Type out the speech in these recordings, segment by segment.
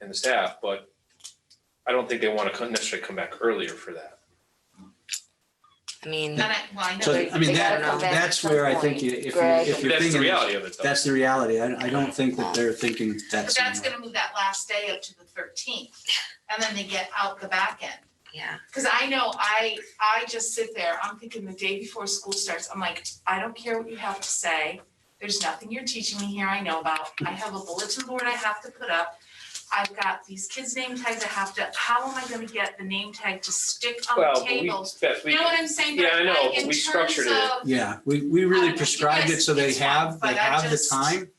and the staff, but I don't think they wanna come- necessarily come back earlier for that. I mean, And I, well, I know. So, they- I mean, they that, gotta come back that's at some where I point. think you- if you, Greg. if you're That's the thinking, reality of it though. that's the reality. I, I don't think that they're thinking that's. But that's gonna move that last day up to the thirteenth, and then they get out the back end. yeah, Cause I know, I, I just sit there, I'm thinking the day before school starts, I'm like, I don't care what you have to say. There's nothing you're teaching me here I know about. I have a bulletin board I have to put up. I've got these kids' name tags I have to, how am I gonna get the name tag to stick on Well, the but we, tables? Beth, You we, know what I'm saying? Yeah, But I know, like, but in we terms structured it. of- Yeah, we, we I really don't know, you prescribed it guys- so they it's fine, have, they but I have the just- time.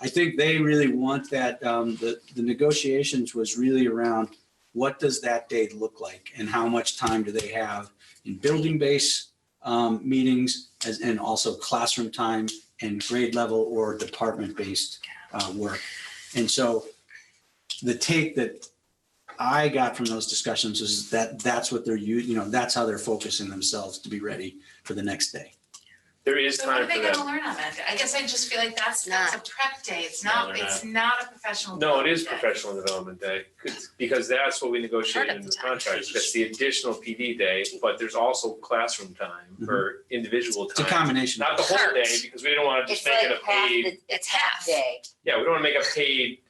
I think they really want that, um, the, the negotiations was really around what does that day look like and how much time do they have in building base, um, meetings as, and also classroom time and grade level or department based, uh, work. And so the take that I got from those discussions is that that's what they're, u- you know, that's how they're focusing themselves to be ready for the next day. there is So what time are they for gonna that. learn on that? day? I guess I just feel like that's, Not. that's a prep day. It's No, not, they're it's not a professional. No, it is development day. professional development day, 'cause- because that's what we negotiated in the contract. That's the additional PD day, but there's also classroom time Mm-hmm. or individual It's a time. combination. Not the whole day, Parts. because we didn't wanna just it's make like it a half, paid the- it's half. day. Yeah, we don't wanna make a paid,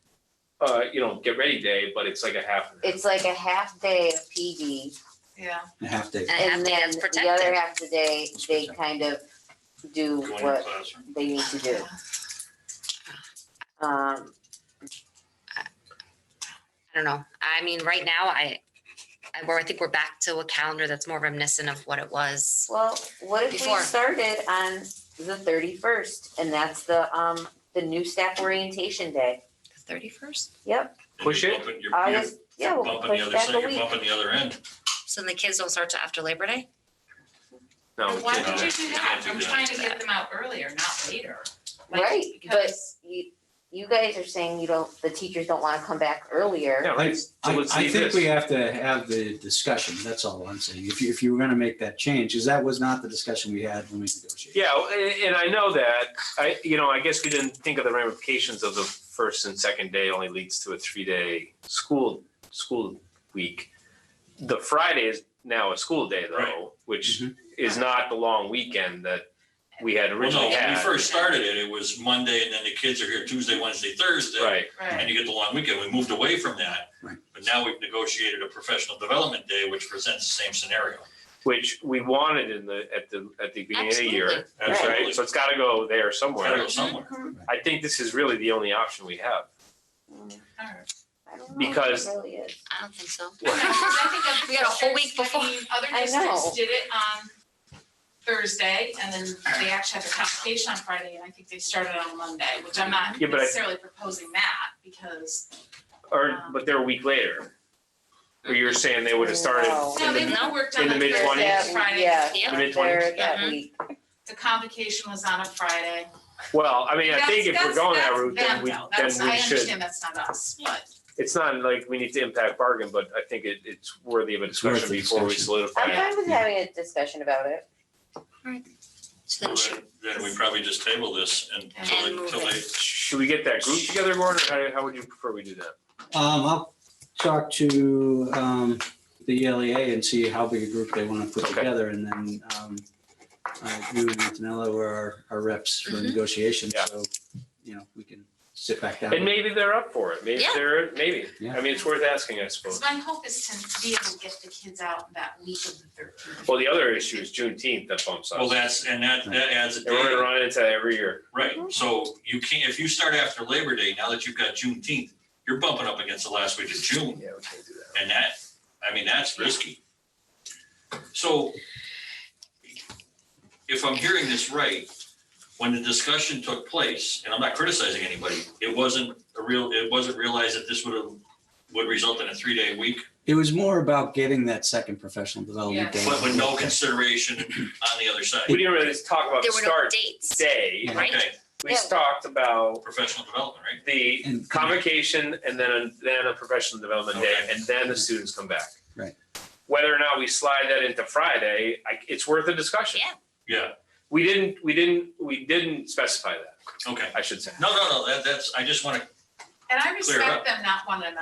uh, you know, get ready day, but it's like a half. and half. It's like a half day of PD. Yeah. A half day. And a half And day then that's the other protected. half of the day, It's they protected. kind of do what they need to do. Um, I don't know. I mean, right now, I, I, well, I think we're back to a calendar that's more reminiscent of what it was. well, what if we Before. started on the thirty-first and that's the, um, the new staff orientation day? The thirty-first? Yep, And Push you're it. bumping- You're, you're August, Uh, yeah, you're we'll bumping the push other back side, a you're week. bumping the other end. So then the kids don't start till after Labor Day? No, we Why can't do did that. you do that? I'm Yeah. trying to get them out earlier, not later. Like, Right, but- because- You, you guys are saying you don't, the teachers don't wanna come back earlier. Yeah, I, right. So I let's I leave think we this. have to have the discussion. That's all I'm saying. If you, if you were going to make that change, because that was not the discussion we had when we negotiated. Yeah, well, a- and I know that, I, you know, I guess we didn't think of the ramifications of the first and second day only leads to a three-day school, school week. The Friday is now a school day Right. Mm-hmm. though, which Mhm. is not the long weekend that we had Well, no, originally when we had. first started it, it was Monday and then the kids are here Tuesday, Wednesday, Thursday. Right, Right, And you get the long weekend. We moved away from that. Right. But now we've negotiated a professional development day, which presents the same scenario. which we wanted in the, at the, at the beginning of the year, Absolutely. right? So it's gotta go there Gotta go somewhere. somewhere. I think this is really the only option we have. alright. Hmm. I don't know if it Because- really is. I don't think so. I know, 'cause I think other We got a whole week districts- I mean, Other I districts know. did it on Thursday and then they actually had a convocation on Friday and I think they started on Monday, which I'm not Yeah, but I- necessarily proposing that because. Or, but they're a week later. Or you're saying they would have started No. in No, the they would have worked in on the the mid-twenties? Thursday, Yeah, Friday. yeah. Yeah. the mid twenties? Mm-hmm. There that Mhm. week. The convocation was on a Friday. Well, I mean, I think if we're That's- going that that's- route, then that's we, them, though. then That's- we I should, understand that's not us, but. it's not like we need to impact bargain, but I think it, it's worthy of a It's worth discussion the before we discussion. solidify I'm it. fine with having a discussion about it. So So then she- Then then we probably just table this and until And they, move until it. they Should we get that group together, Gordon, or how, how would you prefer we do that? Um, I'll talk to, um, the ELEA and see how big a group they want to put Okay. together and then, um, uh, you and Antonella were our, our reps for Mhm. negotiations, Yeah. so, you know, we can sit back down. And maybe they're up for it, maybe Yeah. they're, maybe, Yeah. I mean, it's worth asking, I Because suppose. my hope is to be able to get the kids out that week of the thirteenth. Well, the other issue is Juneteenth that bumps us. Well, that's, and that, that adds a And we're gonna day, run into that every year. right, Mm-hmm. so you can't, if you start after Labor Day, now that you've got Juneteenth, you're bumping up against the last week of June, Yeah, we can't do that. and that, I mean, that's risky. So if I'm hearing this right, when the discussion took place, and I'm not criticizing anybody, it wasn't a real, it wasn't realized that this would have, would result in a three-day week, It was more about getting that second professional development day. but with no consideration on the other side, We didn't really talk about the There were no start dates. day, Yeah. Right. okay, we Yeah. talked about professional development, right? the And- convocation and then, a- then a professional development day, Okay. and then the students come back. Right. Whether or not we slide that into Friday, I, it's worth a discussion. Yeah. Yeah, We didn't, we didn't, we didn't specify that, okay. I should say. No, no, no, that, that's, I just want to And I respect up. them not wanting to